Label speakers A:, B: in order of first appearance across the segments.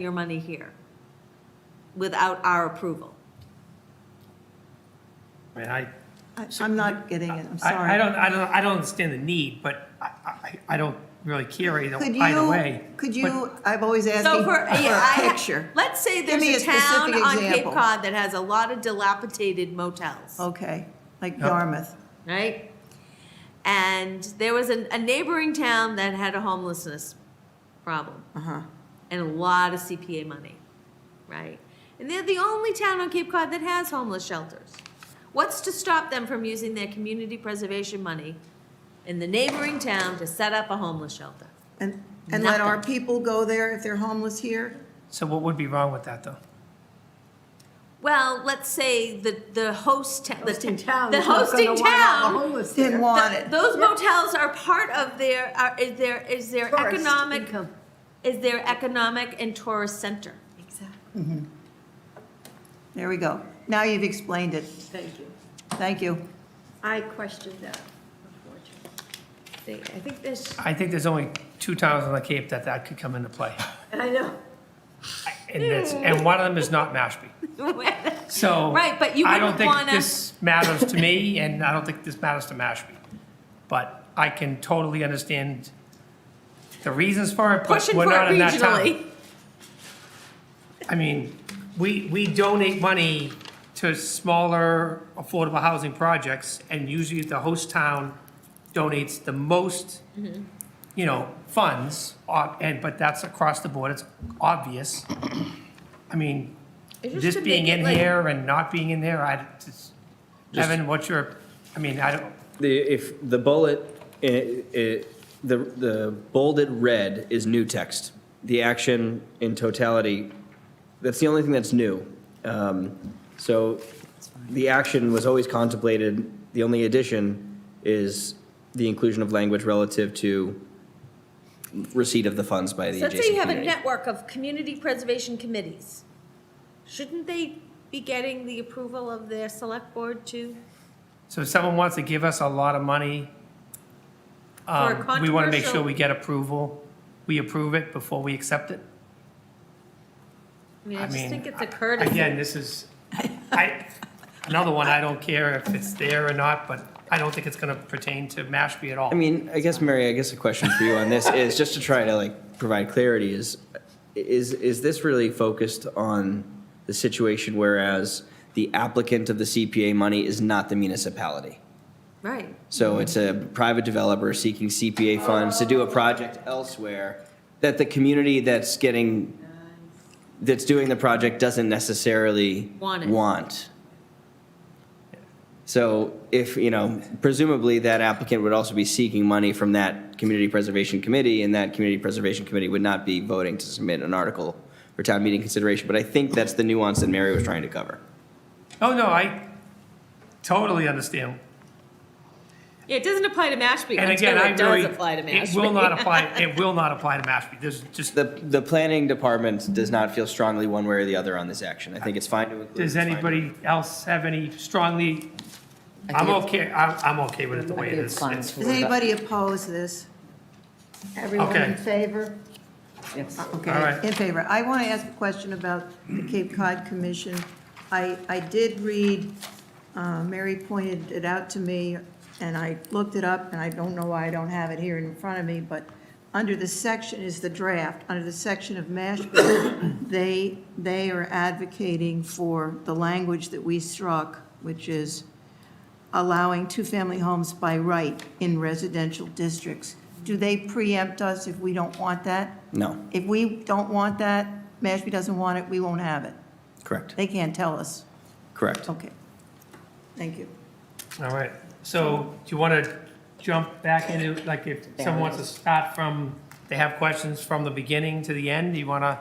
A: your money here without our approval.
B: I mean, I,
C: I- I'm not getting it, I'm
B: I, I
C: sorry.
B: don't, I don't, I don't understand the need, but I, I, I don't really care either,
C: Could
B: either way.
C: you, could
B: But-
C: you, I've always asked
A: So
C: you
A: for,
C: for
A: yeah,
C: a
A: I, ha-
C: picture.
A: let's say
C: Give
A: there's
C: me
A: a
C: a specific
A: town on Cape
C: example. Oh.
A: Cod that has a lot of dilapidated motels,
C: Okay, like
B: No.
C: Yarmouth.
A: right? And there was a, a neighboring town that had a homelessness problem
C: Uh-huh.
A: and a lot of CPA money, right? And they're the only town on Cape Cod that has homeless shelters. What's to stop them from using their community preservation money in the neighboring town to set up a homeless shelter?
C: And, and let our
A: Nothing.
C: people go there if they're homeless here?
B: So what would be wrong with that, though?
A: Well, let's say the, the host, ta- the
D: hosting
A: ta-
D: town.
A: The
D: is not gonna
A: hosting
D: want all the
A: town.
D: homeless
C: Didn't
D: there.
A: th-
C: want it.
A: Those motels are part of their, are, is their, is their
D: Tourist
A: economic,
D: income.
A: is their economic and tourist center.
D: Exactly,
C: There we go. Now you've explained it.
D: thank you.
C: Thank you.
D: I questioned that, unfortunately.
A: They- I think this,
B: I think there's only two towns on the Cape that that could come into play,
D: I know,
B: and that's, and one of them is not Mashpee. So.
A: Right, but you
B: I don't
A: wouldn't
B: think
A: wanna-
B: This matters to me, and I don't think this matters to Mashpee. But I can totally understand the reasons for it, but
A: pushing for
B: we're
A: it
B: not in that town.
A: regionally.
B: I mean, we, we donate money to smaller affordable housing projects, and usually the host town donates the most, you know, funds, uh, and, but that's across the board, it's obvious. I mean,
A: It's just
B: this
A: to
B: being
A: make it
B: in
A: like-
B: here and not being in there, I, just-
E: Just-
B: Evan, what's your, I mean, I don't,
E: The, if the bullet, eh, eh, the, the bolded red is new text. The action in totality, that's the only thing that's new. Um, So the action was always contemplated, the only addition is the inclusion of language relative to receipt of the funds by the
A: So let's
E: adjacent
A: say you have a
E: community.
A: network of community preservation committees. Shouldn't they be getting the approval of their select board too?
B: so if someone wants to give us a lot of money,
A: a
B: um, we want to make sure
A: controversial-
B: we get approval, we approve it before we accept it?
A: I mean, I
B: I
A: just
B: mean,
A: think it's
B: I-
A: a courtesy.
B: Again, this is, I, another one, I don't care if it's there or not, but I don't think it's gonna pertain to Mashpee at all.
E: I mean, I guess, Mary, I guess a question for you on this is, just to try to like provide clarity, is, is, is this really focused on the situation whereas the applicant of the CPA money is not the municipality?
A: Right.
E: So it's a private developer seeking CPA funds to do a project elsewhere that the community that's getting, that's doing the project doesn't necessarily
A: Want it.
E: want. So if, you know, presumably that applicant would also be seeking money from that Community Preservation Committee, and that Community Preservation Committee would not be voting to submit an article for town meeting consideration. But I think that's the nuance that Mary was trying to cover.
B: Oh, no, I totally understand.
A: Yeah, it doesn't apply to Mashpee
B: And
A: until
B: again, I
A: it does
B: really,
A: apply to Mashpee.
B: it will not apply, it will not apply to Mashpee. There's just,
E: The, the planning department does not feel strongly one way or the other on this action. I think it's fine to include.
B: does
E: it's fine to-
B: anybody else have any strongly,
F: I
B: I'm
F: think it's-
B: okay, I'm, I'm okay with it the
F: I
B: way
F: think
B: it
F: it's
B: is.
F: fine.
B: It's-
C: Does anybody oppose this?
D: everyone
B: Okay.
D: in favor?
F: Yes.
B: All
C: Okay,
B: right.
C: in favor. I want to ask a question about the Cape Cod Commission. I, I did read, uh, Mary pointed it out to me, and I looked it up, and I don't know why I don't have it here in front of me, but under the section is the draft, under the section of Mashpee, they, they are advocating for the language that we struck, which is allowing two-family homes by right in residential districts. Do they preempt us if we don't want that?
E: No,
C: If we don't want that, Mashpee doesn't want it, we won't have it.
E: correct,
C: They can't tell us.
E: correct.
C: Okay. Thank you.
B: All right, so do you wanna jump back into, like, if someone wants to start from, they have questions from the beginning to the end, do you wanna?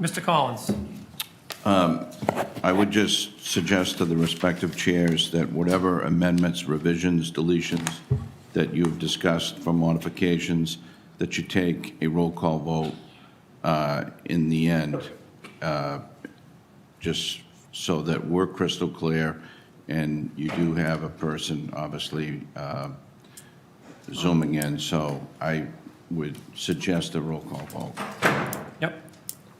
B: Mr. Collins?
G: I would just suggest to the respective chairs that whatever amendments, revisions, deletions that you've discussed for modifications, that you take a roll call vote uh, in the end, uh, just so that we're crystal clear, and you do have a person, obviously, uh, zooming in, so I would suggest a roll call vote.